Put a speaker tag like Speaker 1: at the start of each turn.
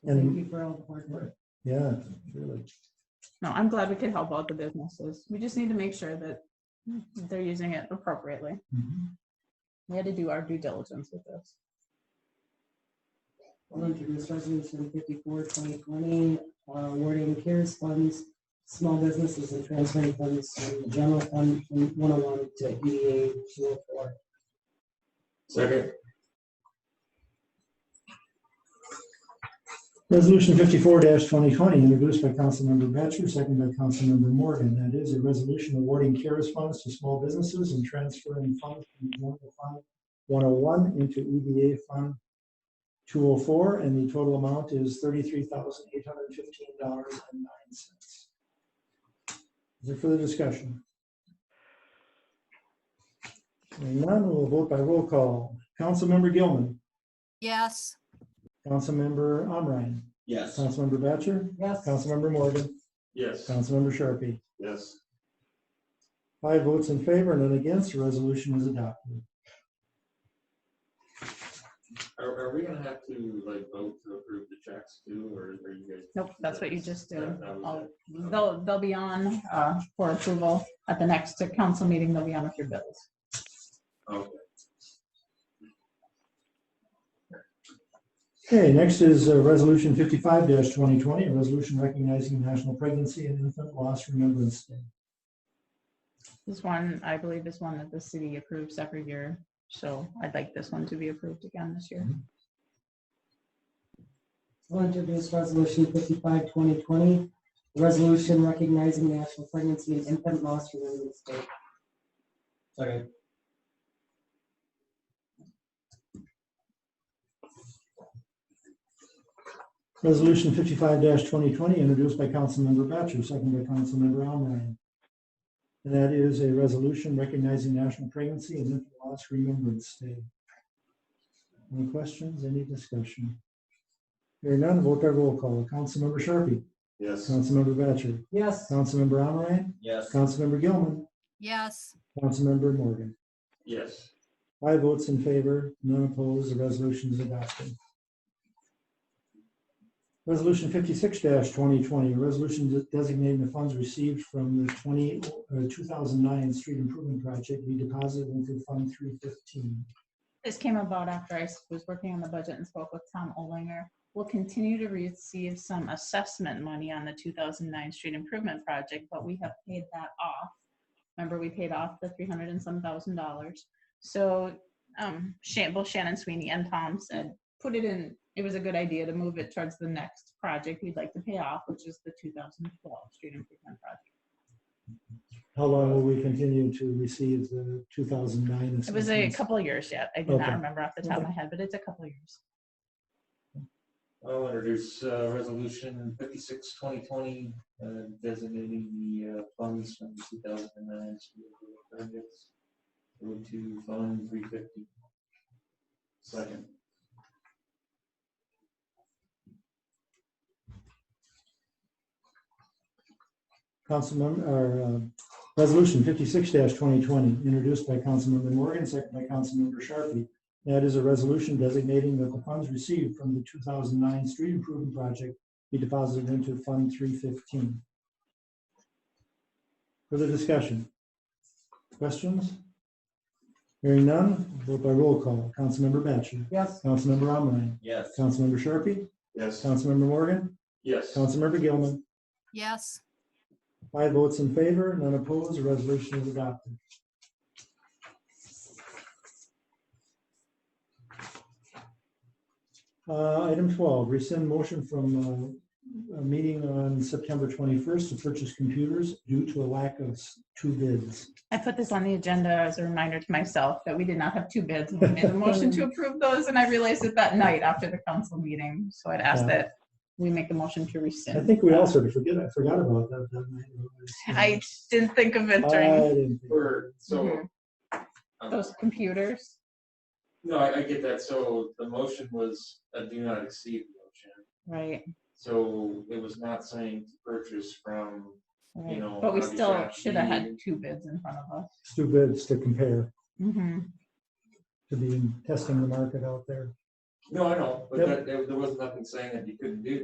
Speaker 1: Thank
Speaker 2: And,
Speaker 1: you for all the hard work.
Speaker 2: yeah, really.
Speaker 3: No, I'm glad we could help out the businesses. We just need to make sure that they're using it appropriately. We had to do our due diligence with this.
Speaker 1: I'll introduce resolution 54 2020 uh, awarding CARES funds, small businesses and transferring funds from the general fund from one oh one to EDA two oh four.
Speaker 4: Second.
Speaker 2: Resolution fifty-four twenty twenty, introduced by Councilmember Batchor, seconded by Councilmember Morgan. That is a resolution awarding CARES funds to small businesses and transferring funds from general fund one oh one into EDA fund two oh four, and the total amount is thirty-three thousand eight hundred and fifteen dollars and nine cents. Is there further discussion? Hearing none, we'll vote by roll call. Councilmember Gilman,
Speaker 5: Yes,
Speaker 2: Councilmember Omerion,
Speaker 4: Yes.
Speaker 2: Councilmember Batchor,
Speaker 1: Yes.
Speaker 2: Councilmember Morgan,
Speaker 4: Yes.
Speaker 2: Councilmember Sharpie.
Speaker 4: Yes.
Speaker 2: Five votes in favor, none against, the resolution is adopted.
Speaker 4: Are, are we gonna have to like vote to approve the checks too, or are you guys?
Speaker 3: Nope, that's what you just
Speaker 4: Yeah,
Speaker 3: did.
Speaker 4: that was
Speaker 3: I'll-
Speaker 4: it.
Speaker 3: They'll, they'll be on uh, for approval at the next council meeting. They'll be on with your bills.
Speaker 4: Okay.
Speaker 2: Okay, next is uh, Resolution fifty-five twenty twenty, a resolution recognizing National Pregnancy and Infant Loss Remembrance Day.
Speaker 3: This one, I believe, is one that the city approves every year. So I'd like this one to be approved again this year.
Speaker 1: I'll introduce resolution 55-2020, a resolution recognizing national pregnancy and infant loss remembrance day.
Speaker 4: Second.
Speaker 2: Resolution fifty-five twenty twenty, introduced by Councilmember Batchor, seconded by Councilmember Omerion. And that is a resolution recognizing National Pregnancy and Infant Loss Remembrance Day. Any questions, any discussion? Hearing none, vote by roll call. Councilmember Sharpie,
Speaker 4: Yes.
Speaker 2: Councilmember Batchor,
Speaker 1: Yes.
Speaker 2: Councilmember Omerion,
Speaker 4: Yes.
Speaker 2: Councilmember Gilman,
Speaker 5: yes,
Speaker 2: Councilmember Morgan.
Speaker 4: Yes.
Speaker 2: Five votes in favor, none opposed, the resolution is adopted. Resolution fifty-six twenty twenty, a resolution de- designating the funds received from the twenty, uh, two thousand nine street improvement project be deposited into Fund three fifteen.
Speaker 3: This came about after I s- was working on the budget and spoke with Tom Olinger. We'll continue to receive some assessment money on the 2009 street improvement project, but we have paid that off. Remember, we paid off the 300 and some thousand dollars. So um, Shan- both Shannon Sweeney and Tom said, put it in, it was a good idea to move it towards the next project we'd like to pay off, which is the 2012 street improvement project.
Speaker 2: How long will we continue to receive the two thousand nine?
Speaker 3: It was a couple of years yet. I do not
Speaker 2: Okay.
Speaker 3: remember off the top of my head, but it's a couple of years.
Speaker 4: I'll introduce uh, resolution fifty-six twenty twenty, uh, designating the uh, funds from two thousand and nine. projects. Move to fund three fifty. Second.
Speaker 2: Councilmember, or, uh, Resolution fifty-six twenty twenty, introduced by Councilmember Morgan, second by Councilmember Sharpie. That is a resolution designating that the funds received from the two thousand nine street improvement project be deposited into Fund three fifteen. Further discussion? Questions? Hearing none, vote by roll call. Councilmember Batchor.
Speaker 1: Yes.
Speaker 2: Councilmember Omerion.
Speaker 4: Yes.
Speaker 2: Councilmember Sharpie.
Speaker 4: Yes.
Speaker 2: Councilmember Morgan.
Speaker 4: Yes.
Speaker 2: Councilmember Gilman.
Speaker 5: yes,
Speaker 2: Five votes in favor, none opposed, the resolution is adopted. Uh, Item 12, rescind motion from uh, a meeting on September 21st to purchase computers due to a lack of s- two bids.
Speaker 3: I put this on the agenda as a reminder to myself that we did not have two bids. and We made a motion to approve those, and I realized it that night after the council meeting. So I'd ask
Speaker 2: Yeah.
Speaker 3: that we make the motion to
Speaker 2: I
Speaker 3: rescind.
Speaker 2: think we also forget, I forgot about that. that night.
Speaker 3: I didn't think of it
Speaker 2: I
Speaker 3: during
Speaker 2: didn't think-
Speaker 4: For, so. um,
Speaker 3: Mhm.
Speaker 2: Uh,
Speaker 3: those computers.
Speaker 4: No, I, I get that. So the motion was a do not exceed motion.
Speaker 3: Right,
Speaker 4: So it was not saying to purchase from,
Speaker 3: right.
Speaker 4: know,
Speaker 3: But we
Speaker 4: Robbie
Speaker 3: still
Speaker 4: Shaw,
Speaker 3: should have
Speaker 4: he-
Speaker 3: had two bids in front of us.
Speaker 2: Two bids to compare,
Speaker 3: Mhm.
Speaker 2: to be testing the market out there.
Speaker 4: no, I know, but
Speaker 2: Yep.
Speaker 4: that- there, there was nothing saying that you couldn't do